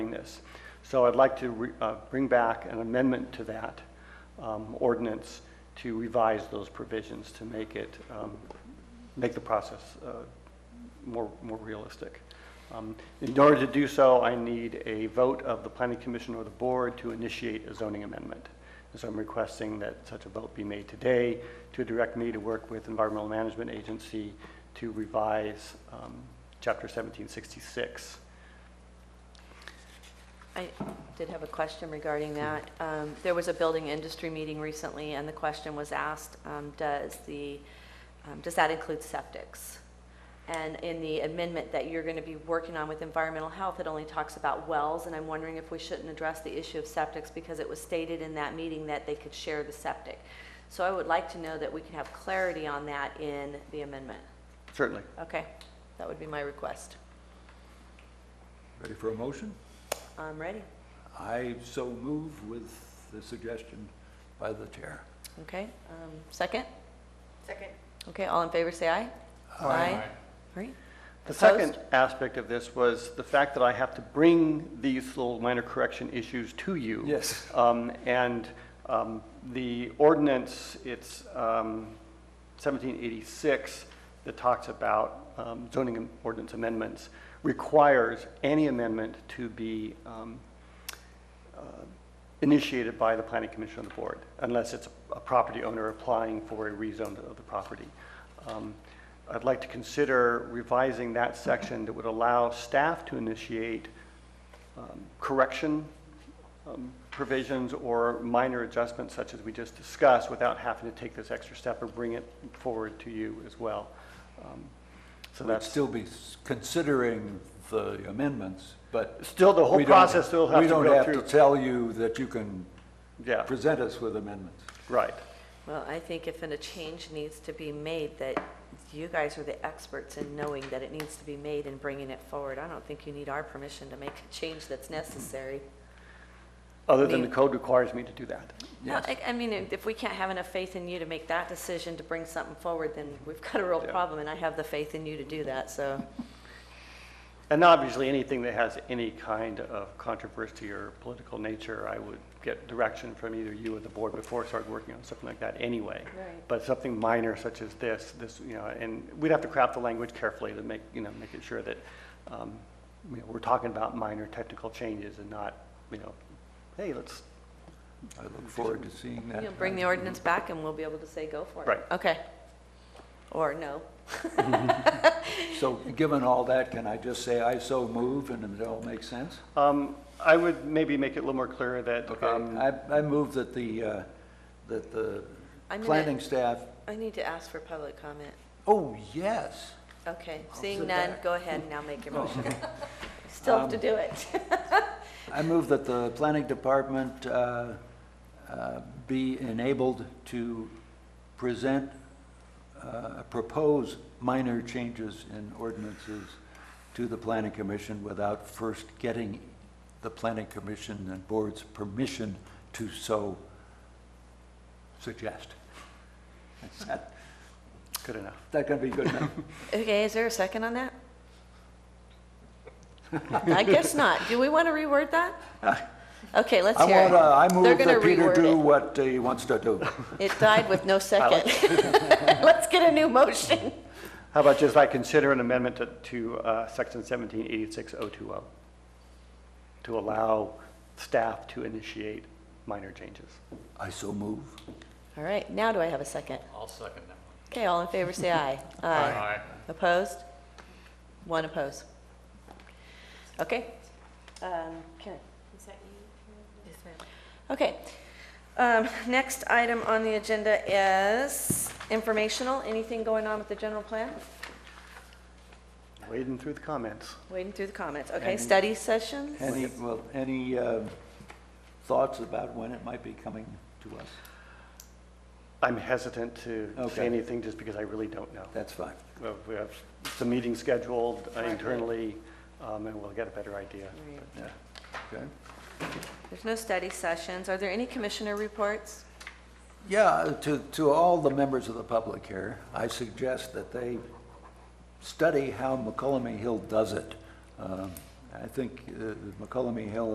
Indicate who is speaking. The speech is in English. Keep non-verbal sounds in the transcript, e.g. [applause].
Speaker 1: doing this. So I'd like to re- uh, bring back an amendment to that um, ordinance to revise those provisions to make it, um, make the process uh, more, more realistic. Um, In order to do so, I need a vote of the planning commission or the board to initiate a zoning amendment. And so I'm requesting that such a vote be made today to direct me to work with Environmental Management Agency to revise um, Chapter 1766
Speaker 2: I did have a question regarding that. Um, There was a building industry meeting recently, and the question was asked, um, does the, um, does that include septics? And in the amendment that you're going to be working on with environmental health, it only talks about wells, and I'm wondering if we shouldn't address the issue of septics, because it was stated in that meeting that they could share the septic. So I would like to know that we can have clarity on that in the amendment.
Speaker 1: Certainly.
Speaker 2: Okay, that would be my request.
Speaker 3: Ready for a motion?
Speaker 2: I'm ready.
Speaker 3: I so move with the suggestion by the chair.
Speaker 2: Okay, um, second?
Speaker 4: Second.
Speaker 2: Okay, all in favor, say aye. Aye. All right.
Speaker 1: The
Speaker 2: Opposed?
Speaker 1: second aspect of this was the fact that I have to bring these little minor correction issues to you.
Speaker 3: Yes.
Speaker 1: Um, And um, the ordinance, it's um, 1786, that talks about um, zoning ordinance amendments, requires any amendment to be um, uh, initiated by the planning commission of the board, unless it's a property owner applying for a rezone of the property. Um, I'd like to consider revising that section that would allow staff to initiate um, correction um, provisions or minor adjustments such as we just discussed without having to take this extra step or bring it forward to you as well. Um, So
Speaker 3: We'd
Speaker 1: that's.
Speaker 3: still be s- considering the amendments, but.
Speaker 1: Still, the whole
Speaker 3: we don't-
Speaker 1: process still has to
Speaker 3: We
Speaker 1: go
Speaker 3: don't have
Speaker 1: through.
Speaker 3: to tell you that you can
Speaker 1: Yeah,
Speaker 3: present us with amendments.
Speaker 1: right.
Speaker 2: Well, I think if a change needs to be made, that you guys are the experts in knowing that it needs to be made and bringing it forward. I don't think you need our permission to make a change that's necessary.
Speaker 1: Other than the
Speaker 2: Maybe.
Speaker 1: code requires me to do that.
Speaker 2: No,
Speaker 3: Yes.
Speaker 2: I, I mean, if we can't have enough faith in you to make that decision to bring something forward, then we've got a real
Speaker 1: Yeah.
Speaker 2: problem, and I have the faith in you to do that, so.
Speaker 1: And obviously, anything that has any kind of controversy or political nature, I would get direction from either you or the board before I started working on something like that anyway.
Speaker 2: Right.
Speaker 1: But something minor such as this, this, you know, and we'd have to craft the language carefully to make, you know, make it sure that, um, you know, we're talking about minor technical changes and not, you know, hey, let's,
Speaker 3: I look forward to seeing that.
Speaker 2: You'll bring the ordinance back, and we'll be able to say, go for it.
Speaker 1: Right.
Speaker 2: Okay. Or no.
Speaker 3: [laughs] So given all that, can I just say I so move and it all makes sense?
Speaker 1: um, I would maybe make it a little more clear that,
Speaker 3: Okay,
Speaker 1: um,
Speaker 3: I, I move that the, uh, that the
Speaker 2: I'm gonna-
Speaker 3: planning staff,
Speaker 2: I need to ask for public comment.
Speaker 3: oh, yes.
Speaker 2: Okay,
Speaker 3: I'll
Speaker 2: seeing
Speaker 3: sit
Speaker 2: none,
Speaker 3: back. Oh.
Speaker 2: go ahead and now make
Speaker 3: [laughs]
Speaker 2: your motion. Still have to do it.
Speaker 3: Um, I move that the planning department uh, uh, be enabled to present, uh, propose minor changes in ordinances to the planning commission without first getting the planning commission and board's permission to so suggest. Is that,
Speaker 1: good enough.
Speaker 3: that gonna be good enough?
Speaker 2: [laughs] Okay, is there a second on
Speaker 3: [laughs]
Speaker 2: that? I guess not. Do we want to reword that? Okay, let's
Speaker 3: Uh, I
Speaker 2: hear
Speaker 3: want, uh,
Speaker 2: it.
Speaker 3: I
Speaker 2: They're
Speaker 3: move
Speaker 2: gonna
Speaker 3: that Peter
Speaker 2: reword
Speaker 3: do
Speaker 2: it.
Speaker 3: what he wants to do.
Speaker 2: It died with
Speaker 3: [laughs]
Speaker 2: no second. [laughs] Let's get a new motion.
Speaker 1: How about just I consider an amendment to, to uh, section 1786020 to allow staff to initiate minor changes?
Speaker 3: I so move.
Speaker 2: All right, now do I have a second?
Speaker 5: I'll second that one.
Speaker 2: Okay, all in favor, say
Speaker 5: [laughs]
Speaker 2: aye. Aye. Opposed? One opposed. Okay. Um, Karen?
Speaker 4: Is that you? Yes, ma'am.
Speaker 2: Okay. Um, Next item on the agenda is informational. Anything going on with the general plan?
Speaker 1: Wading through the comments.
Speaker 2: Waiting through the comments. Okay,
Speaker 3: And-
Speaker 2: study sessions?
Speaker 3: Any, well, any um, thoughts about when it might be coming to us?
Speaker 1: I'm hesitant to say
Speaker 3: Okay.
Speaker 1: anything just because I really don't know.
Speaker 3: That's fine.
Speaker 1: Uh, We have some meetings scheduled uh, internally, um, and we'll get a better idea.
Speaker 3: Yeah. Okay.
Speaker 2: There's no study sessions. Are there any commissioner reports?
Speaker 3: Yeah, uh, to, to all the members of the public here, I suggest that they study how McCollum Hill does it. Um, I think uh, McCollum Hill